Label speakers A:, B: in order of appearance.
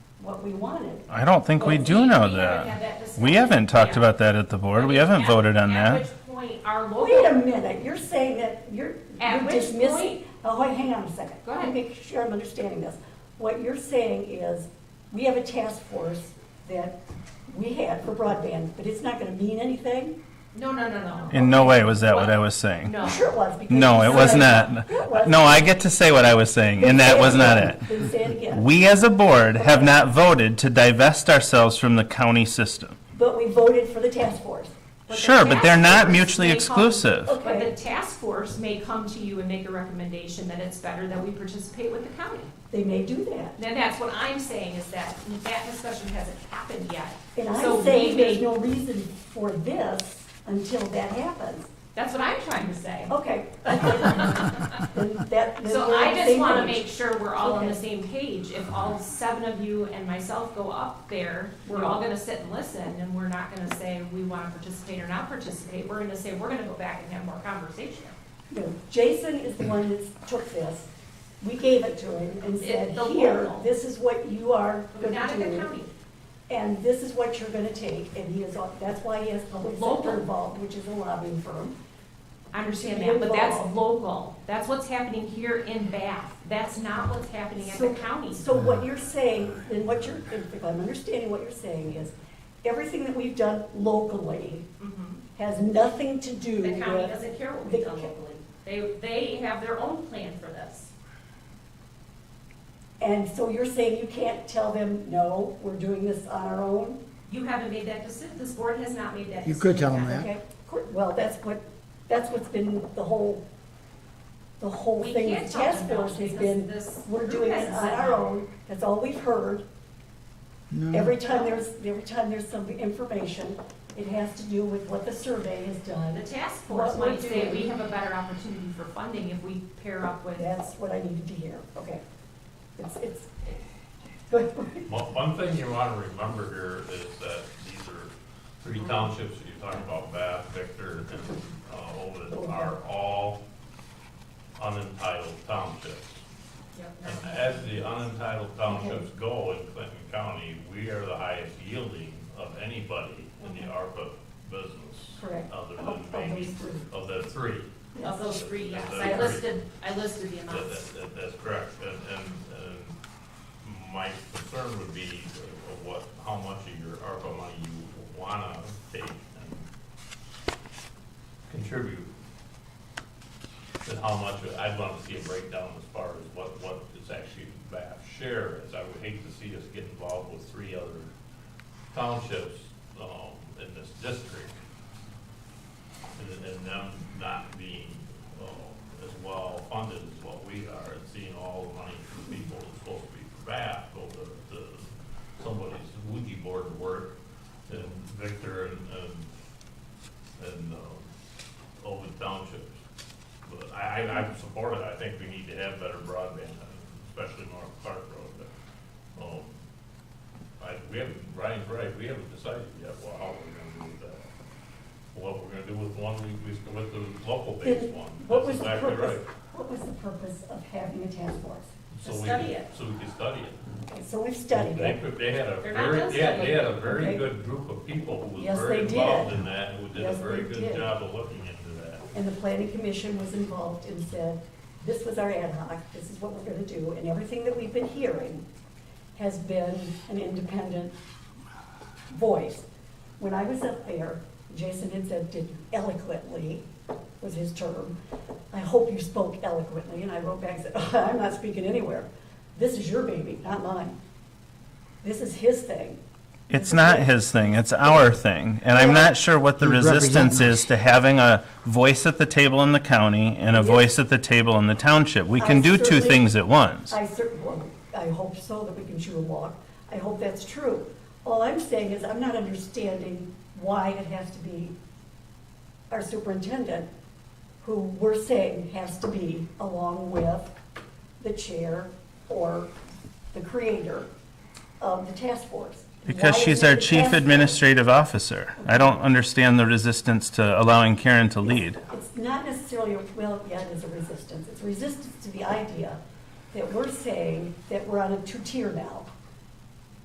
A: what we wanted.
B: I don't think we
A: Well,
B: do know
C: we haven't had that
B: that.
C: discussion.
B: We haven't talked
C: Yeah.
B: about that at the board. We
C: I mean,
B: haven't
C: at-
B: voted on
C: at
B: that.
C: which point our
A: Oh, Wait a
C: local,
A: minute, you're saying that you're
C: At
A: you're
C: which
A: dismissing,
C: point-
A: oh, wait, hang on a second.
C: Go
A: Let me
C: ahead.
A: Make sure I'm understanding this. What you're saying is, we have a task force that we had for broadband, but it's not gonna mean anything?
C: no, no, no, no.
B: In no way was that what I was saying.
C: No.
A: Sure it was, because.
B: No,
A: you
B: it was
A: said-
B: not.
A: It was.
B: No, I get to say what I was saying, and that was not it.
A: Then say it again.
B: We as a board have not voted to divest ourselves from the county system.
A: But we voted for the task force.
C: the
B: Sure, but they're
C: task
B: not
C: force
B: mutually
C: may come-
B: exclusive.
C: But the task force may come to you and make a recommendation that it's better that we participate with the county.
A: They may do that.
C: Then that's what I'm saying is that that discussion hasn't happened yet.
A: And
C: So
A: I'm
C: we
A: saying
C: may-
A: there's no reason for this until that happens.
C: That's what I'm trying to say.
A: Okay. Then that- then
C: So
A: we're on
C: I
A: the
C: just
A: same
C: want to
A: page.
C: make sure we're all on the
A: Okay.
C: same page. If all seven of you and myself go up there, we're all going to sit and listen, and we're not going to say we want to participate or not participate. We're going to say, we're going to go back and have more conversation.
A: No, Jason is the one that took this. We gave it to him and said,
C: the
A: here,
C: local.
A: this is what you are
C: But
A: going
C: Not
A: to
C: in the
A: do.
C: county.
A: And this is what you're going to take. And he is, all- that's why he has public
C: Local.
A: sector involved, which is a lobbying firm.
C: I understand
A: To
C: that, but that's
A: involve.
C: local. That's what's happening here in Bath. That's not what's happening at the
A: So-
C: county.
A: So what you're saying, and what you're, if I'm understanding what you're saying is, everything that we've done locally
C: Mhm.
A: has nothing to do
C: The county
A: with,
C: doesn't care what
A: the
C: we do
A: ca-
C: locally. They, they have their own plan for this.
A: and so you're saying you can't tell them, no, we're doing this on our own?
C: You haven't made that decision. This board has not made that decision.
D: You could tell them
C: yet.
D: that.
A: Okay, cor- well, that's what, that's what's been the whole, the whole
C: We
A: thing
C: can't
A: with
C: talk
A: task
C: about
A: force has
C: this-
A: been,
C: this
A: we're
C: group
A: doing it
C: hasn't
A: on
C: said
A: our
C: no.
A: own, that's all we've heard.
D: No.
A: Every time there's, every time there's some information, it has to do with what the survey has
C: The
A: done.
C: task
A: What
C: force
A: we're
C: might say
A: doing.
C: we have a better opportunity for funding if we pair up with,
A: That's what I needed to hear, okay. It's, it's, good.
E: One, one thing you want to remember here is that these are three townships that you're talking about, Bath, Victor, and uh, Ovid, are all unentitled townships. And as the unentitled townships go in Clinton County, we are the highest yielding of anybody in the ARPA business.
A: Correct.
E: Other
A: Of-
E: than
A: of
E: maybe
A: these three.
E: of the three.
C: of those three, yes, I
E: Yes.
C: listed, I listed the
E: That,
C: amounts.
E: that, that- that's correct, and, and, and my concern would be of what, how much of your ARPA money you wanna take and contribute. And how much, of- I'd wanna see a breakdown as far as what, what is actually BAF share is, I would hate to see us get involved with three other townships, um, in this district and, and them not being, uh, as well funded as what we are, and seeing all the money from people that's supposed to be for back, go to, to somebody's Ouija board work, and Victor and, and, and, uh, Ovid Townships. But I, I, I support it, I think we need to have better broadband, especially North Park Road, but, um, I, we haven't, Ryan's right, we haven't decided yet, well, how we're gonna do with that what we're gonna do with one, we, we, with the local based
A: Then
E: one.
A: what was
E: That's
A: the
E: exactly right.
A: purpose? What was the purpose of having a task force?
E: So
C: To
E: we
C: study
E: could-
C: it.
E: So we can study it.
A: Okay, So we've studied
E: They,
A: it.
E: could- they had a
C: They're not
E: very,
C: done
E: yeah, they had a
A: Okay.
E: very good group of people who
A: Yes,
E: was very
A: they did.
E: involved in that, and who did a
A: Yes,
E: very
A: they
E: good
A: did.
E: job of looking into that.
A: And the planning commission was involved and said, this was our ad hoc, this is what we're gonna do, and everything that we've been hearing has been an independent voice. When I was up there, Jason had said, did eloquently, was his term, I hope you spoke eloquently, and I wrote back and said, I'm not speaking anywhere. This is your baby, not mine. This is his thing.
B: It's not his thing, it's our thing. And I'm not sure what the
D: You represent
B: resistance
D: us.
B: is to having a voice at the table in the county and a
A: Yes.
B: voice at the table in the township. We can
A: I
B: do two
A: certainly-
B: things at once.
A: I certainly, I hope so, that we can shoot a walk. I hope that's true. All I'm saying is, I'm not understanding why it has to be our superintendent, who we're saying has to be along with the chair or the creator of the task force.
B: Because
A: Why
B: she's
A: isn't
B: our
A: the
B: chief
A: task force-
B: administrative officer. I don't understand the resistance to allowing Karen to lead.
A: It's not necessarily, a- well, yeah, it is a resistance. It's resistance to the idea that we're saying that we're on a two-tier now.